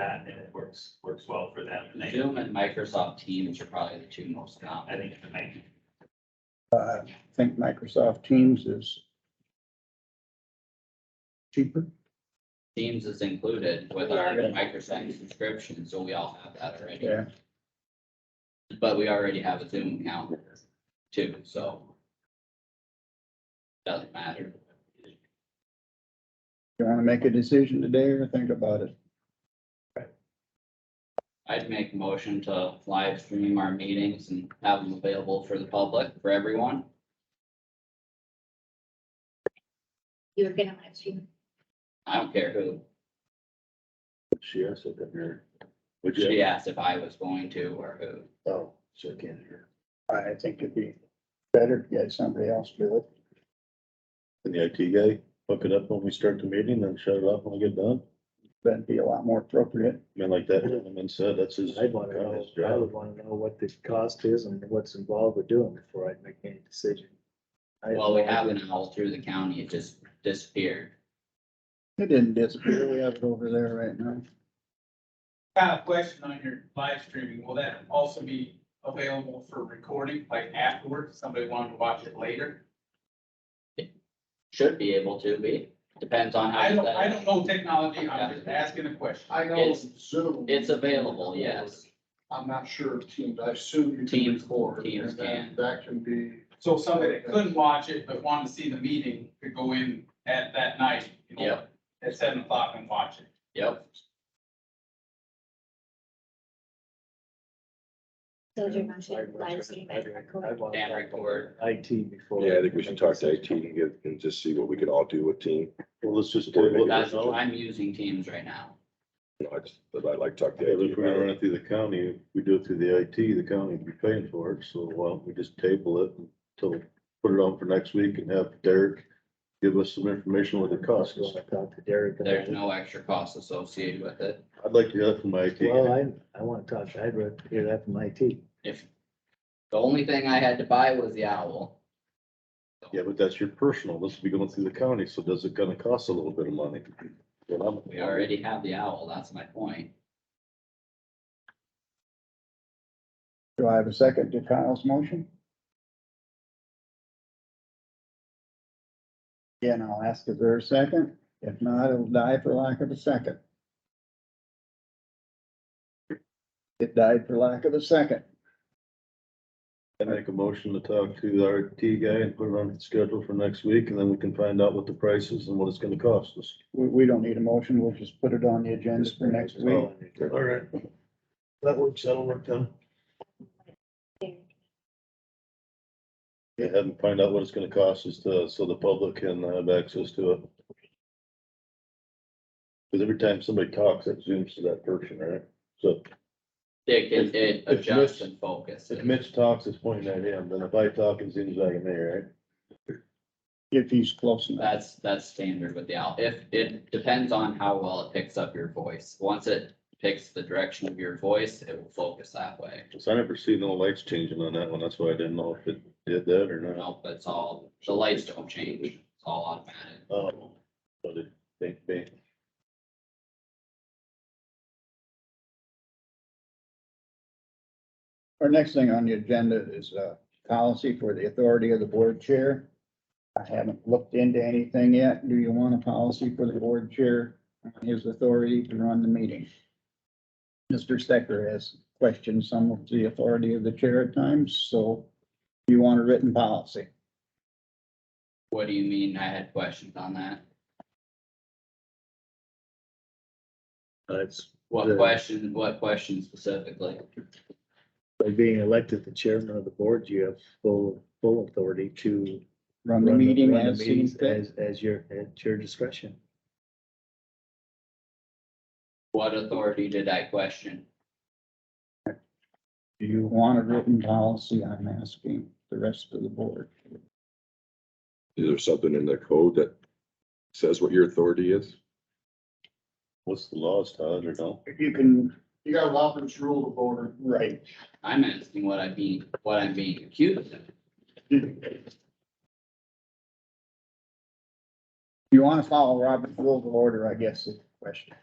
that and it works, works well for them. And they, Zoom and Microsoft Teams are probably the two most I common. think it might be I think Microsoft Teams is cheaper. Teams is included with our Yeah. Microsoft subscription, so we all have that already. Yeah, But we already have a Zoom account too, so. Doesn't matter. you want to make a decision today or think about it? I'd make a motion to live stream our meetings and have them available for the public, for everyone. You're gonna live stream. I don't care who. She also didn't hear. Would you? She asked if I was going to or who. Oh, she can't hear. I think it'd be better to get somebody else to do it. And the IT guy, hook it up when we start the meeting and shut it off when we get done. That'd be a lot more appropriate. I mean, like that, and then said, that's his. I'd wanna know, his I job. would wanna know what the cost is and what's involved with doing it before I'd make any decision. I- Well, we have an owl through the county, it just disappeared. It didn't disappear. We have it over there right now. Kind of question on your live streaming, will that also be available for recording, like afterwards, somebody wanted to watch it later? Should be able to be, depends on how. I you don't, set it I up. don't know technology, I'm just asking a question. I know It's- Zoom. it's available, yes. I'm not sure of Teams, I assume. you can Teams- record, Teams and then can. That can be, So somebody that couldn't watch it but wanted to see the meeting could go in at that night. you know, Yep. At seven o'clock and watch it. Yep, So is your I'd motion want- live stream and I'd- record? I'd wanna and record. IT before. Yeah, I think we should talk to IT decision. and get, and just see what we could all do with team. Well, let's just table That's, it. now. I'm using Teams right now. You know, I just, but I like talk to Yeah, but IT. If we're gonna run it through the county, if we do it through the IT, the county would be paying for it, so why don't we just table it until, put it on for next week and have Derek give us some information what it costs. So I talked to Derek. about There's it. no extra cost associated with it. I'd like to hear that from my IT. Well, guy. I, I wanna talk, I'd rather hear that from IT. If, the only thing I had to buy was the owl. Yeah, but that's your personal, this will be going through the county, so does it gonna cost a little bit of money? Well, I'm- We already have the owl, that's my point. Do I have a second to Kyle's motion? Again, I'll ask if there's a second. If not, it'll die for lack of a second. It died for lack of a second. I make a motion to talk to our T guy and put it on the schedule for next week, and then we can find out what the price is and what it's gonna cost us. We, we don't need a motion. We'll just put it on the agenda for next week. right. That works, that'll work then. Yeah, and find out what it's gonna cost us to, so the public can have access to it. Cause every time somebody talks, it zooms to that person, right? So It, it, it It's adjusts mis- and focuses. if Mitch talks, it's pointing at him, then if I talk, it zooms back at me, right? If he's close enough. That's, that's standard with the owl. If, it depends on how well it picks up your voice. Once it picks the direction of your voice, it will focus that way. So I never see no lights changing on that one, that's why I didn't know if it did that or not. No, that's all, the lights don't change, it's all automatic. Oh, but it, they, they, Our next thing on the agenda is a policy for the authority of the board chair. I haven't looked into anything yet. Do you want a policy for the board chair on his authority to run the meeting? Mr. Stecker has questioned some of the authority of the chair at times, so you want a written policy. What do you mean? I had questions on that. That's What Yeah. question, what question specifically? by being elected the chairman of the board, you have full, full authority to. Run the run meeting run the as seen meetings fit. As, as your, at your discretion. What authority did I question? Do you want a written policy? I'm asking the rest of the board. Is there something in the code that says what your authority is? what's the laws, Todd, or no? You can, you got Robert's rule of order. right. I'm asking what I mean, what I'm being accused of. You want to follow Robert's rules of order, I guess, is the question.